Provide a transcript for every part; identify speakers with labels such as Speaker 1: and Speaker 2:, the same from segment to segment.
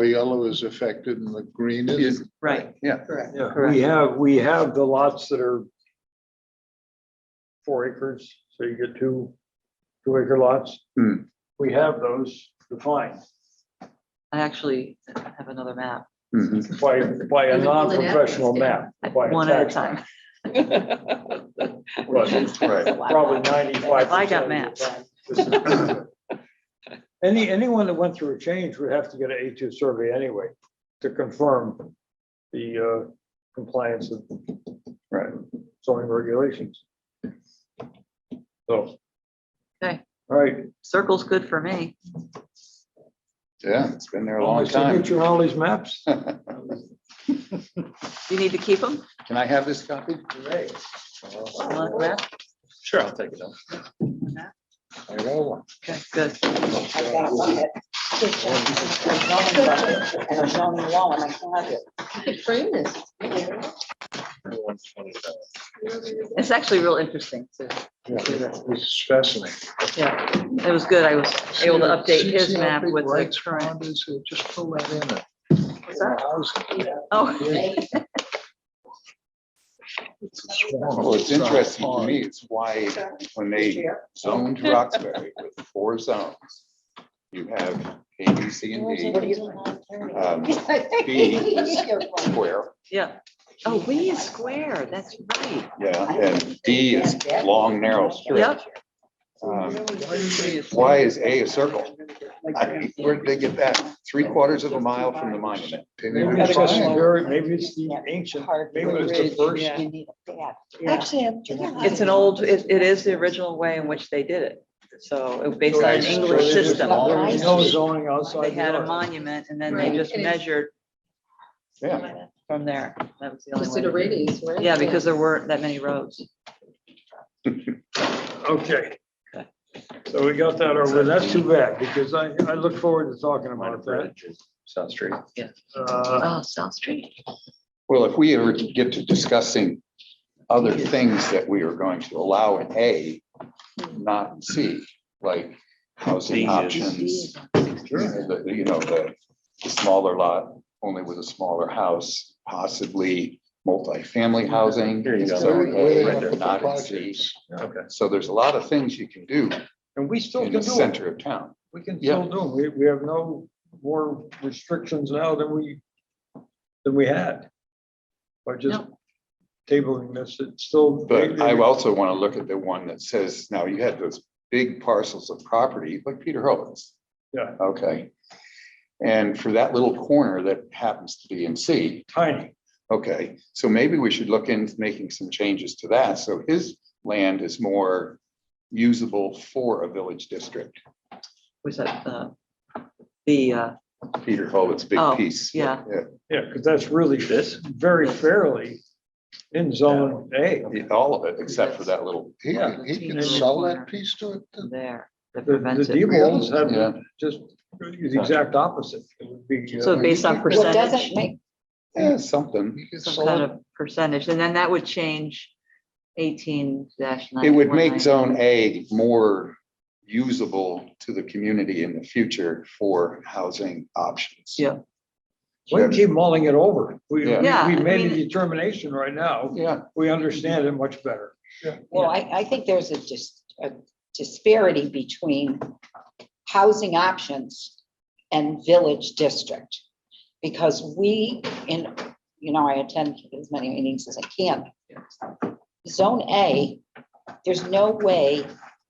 Speaker 1: The yellow is affected and the green is.
Speaker 2: Right,
Speaker 3: Yeah,
Speaker 4: Correct.
Speaker 5: Yeah,
Speaker 2: Correct.
Speaker 5: we have, we have the lots that are four acres, so you get two, two acre lots.
Speaker 3: Hmm.
Speaker 5: We have those defined
Speaker 2: I actually have another map,
Speaker 3: mhm.
Speaker 5: by, by a
Speaker 4: And the Golden
Speaker 5: non-professional
Speaker 4: Apples, yeah.
Speaker 5: map. by a
Speaker 2: one at a
Speaker 5: tax
Speaker 2: time.
Speaker 5: map, but
Speaker 3: Right.
Speaker 5: Probably ninety-five.
Speaker 2: I got maps.
Speaker 5: Any, anyone that went through a change would have to get an A2 survey anyway to confirm the uh, compliance of
Speaker 3: Right.
Speaker 5: zoning regulations. So.
Speaker 2: Okay.
Speaker 5: All right.
Speaker 2: Circle's good for me.
Speaker 3: Yeah, it's been there a
Speaker 5: All my
Speaker 3: long time.
Speaker 5: signature on all these maps.
Speaker 3: Can
Speaker 2: You need to keep them?
Speaker 3: I have this copy?
Speaker 2: Okay,
Speaker 3: Sure, I'll take it. up. I got one.
Speaker 2: good.
Speaker 4: I've got a bucket. Zoning bucket And a zoning law in my closet. You could frame this.
Speaker 2: It's actually real interesting too.
Speaker 1: It's fascinating.
Speaker 2: Yeah, it was good. I was able to update
Speaker 1: See-
Speaker 2: his
Speaker 1: see how
Speaker 2: map
Speaker 1: big
Speaker 2: with the
Speaker 1: Wright's
Speaker 2: current.
Speaker 1: Pond is? Uh, Just pull that in. there.
Speaker 2: What's that?
Speaker 1: How's-
Speaker 2: Oh,
Speaker 1: It's a swamp.
Speaker 3: Well, it's
Speaker 1: not a
Speaker 3: interesting to
Speaker 1: pond.
Speaker 3: me, it's why when they zoned Roxbury with four zones, you have A, B, C, and D, um, square,
Speaker 2: yeah. Oh, we is square. That's right.
Speaker 3: yeah, and D is long, narrow strip.
Speaker 2: Yep.
Speaker 3: Um, Why is A a circle? I
Speaker 5: uh,
Speaker 3: mean, Where did they get that? Three quarters of a mile from the monument.
Speaker 1: Didn't
Speaker 5: Maybe
Speaker 1: even
Speaker 5: it's
Speaker 1: find
Speaker 5: just
Speaker 1: it.
Speaker 5: very- maybe it's the ancient, maybe it was the first.
Speaker 4: Actually,
Speaker 2: It's an old, it, it is the original way in which they did it. So it was based on an
Speaker 5: So
Speaker 2: English
Speaker 5: there's
Speaker 2: system.
Speaker 5: no zoning outside.
Speaker 2: They had
Speaker 5: the
Speaker 2: a
Speaker 5: yard.
Speaker 2: monument and then they just measured
Speaker 3: Yeah,
Speaker 2: from there. That was the only
Speaker 4: Just did a
Speaker 2: way.
Speaker 4: radius,
Speaker 2: to-
Speaker 4: right?
Speaker 2: Yeah, because there weren't that many roads.
Speaker 5: Okay. So we got that over. That's too bad because I, I look forward to talking about that.
Speaker 3: South Street.
Speaker 5: Uh,
Speaker 2: Oh, South Street.
Speaker 3: Well, if we ever get to discussing other things that we are going to allow in A, not in C, like housing options. the- You know, the smaller lot, only with a smaller house, possibly multifamily housing.
Speaker 6: Here you go.
Speaker 3: So,
Speaker 1: Where
Speaker 3: uh,
Speaker 1: they
Speaker 3: right,
Speaker 1: put
Speaker 3: they're
Speaker 1: the
Speaker 3: not in C.
Speaker 1: projects.
Speaker 6: Okay.
Speaker 3: So there's a lot of things you can do
Speaker 5: And we still
Speaker 3: in
Speaker 5: can do
Speaker 3: the
Speaker 5: it.
Speaker 3: center of town.
Speaker 5: We can
Speaker 3: Yeah.
Speaker 5: still do. it. We, we have no more restrictions now than we, than we had. By just tabling this, it's still.
Speaker 3: But I also want to look at the one that says, now you had those big parcels of property, like Peter Hurwitz.
Speaker 5: Yeah.
Speaker 3: Okay. And for that little corner that happens to be in C,
Speaker 5: Tiny.
Speaker 3: okay, so maybe we should look into making some changes to that. So his land is more usable for a village district,
Speaker 2: Was that, uh, the, uh,
Speaker 3: Peter Hurwitz's big
Speaker 2: Oh,
Speaker 3: piece.
Speaker 2: yeah.
Speaker 5: Yeah, because that's really
Speaker 6: This?
Speaker 5: very fairly in zone A.
Speaker 3: All of it, except for that little,
Speaker 1: He could, he could sell that piece to it. then.
Speaker 2: there that
Speaker 5: The, the
Speaker 2: prevents it.
Speaker 5: Diebold's
Speaker 3: yeah,
Speaker 5: have just the exact opposite. It would be, uh,
Speaker 2: So based on
Speaker 4: Well, doesn't
Speaker 2: percentage,
Speaker 4: make,
Speaker 3: yeah, something.
Speaker 1: He could
Speaker 2: some
Speaker 1: sell
Speaker 2: kind
Speaker 1: it.
Speaker 2: of percentage, and then that would change eighteen dash nine.
Speaker 3: It would make zone A more usable to the community in the future for housing options.
Speaker 2: Yeah.
Speaker 5: We can keep mulling it over. We, we
Speaker 3: Yeah.
Speaker 2: Yeah,
Speaker 5: we
Speaker 2: I
Speaker 5: made a
Speaker 2: mean-
Speaker 5: determination right now.
Speaker 3: Yeah,
Speaker 5: We understand it much better.
Speaker 7: Well, I, I think there's a dis a disparity between housing options and village district. Because we, in, you know, I attend as many meetings as I can. Zone A, there's no way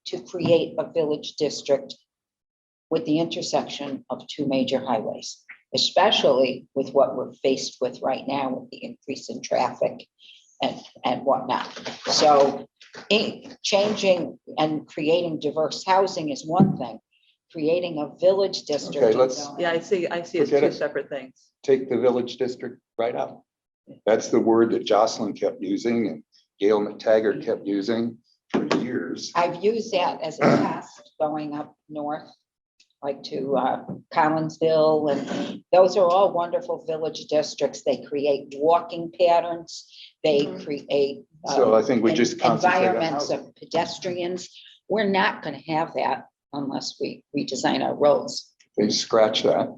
Speaker 7: to create a village district with the intersection of two major highways, especially with what we're faced with right now with the increase in traffic and, and whatnot. So in- changing and creating diverse housing is one thing. Creating a village district.
Speaker 3: Okay,
Speaker 7: in
Speaker 3: let's-
Speaker 7: zone-
Speaker 2: Yeah, I see, I see it's
Speaker 3: Forget
Speaker 2: two
Speaker 3: it.
Speaker 2: separate things.
Speaker 3: take the village district right out. That's the word that Jocelyn kept using and Gail McTaggart kept using for years.
Speaker 7: I've used that as a test going up north, like to uh, Collinsville, and those are all wonderful village districts. They create walking patterns. They
Speaker 4: Mhm.
Speaker 7: create. uh,
Speaker 3: So I think we
Speaker 7: en-
Speaker 3: just concentrate on
Speaker 7: Environments
Speaker 3: housing.
Speaker 7: of pedestrians. We're not going to have that unless we redesign our roads.
Speaker 3: They scratch that.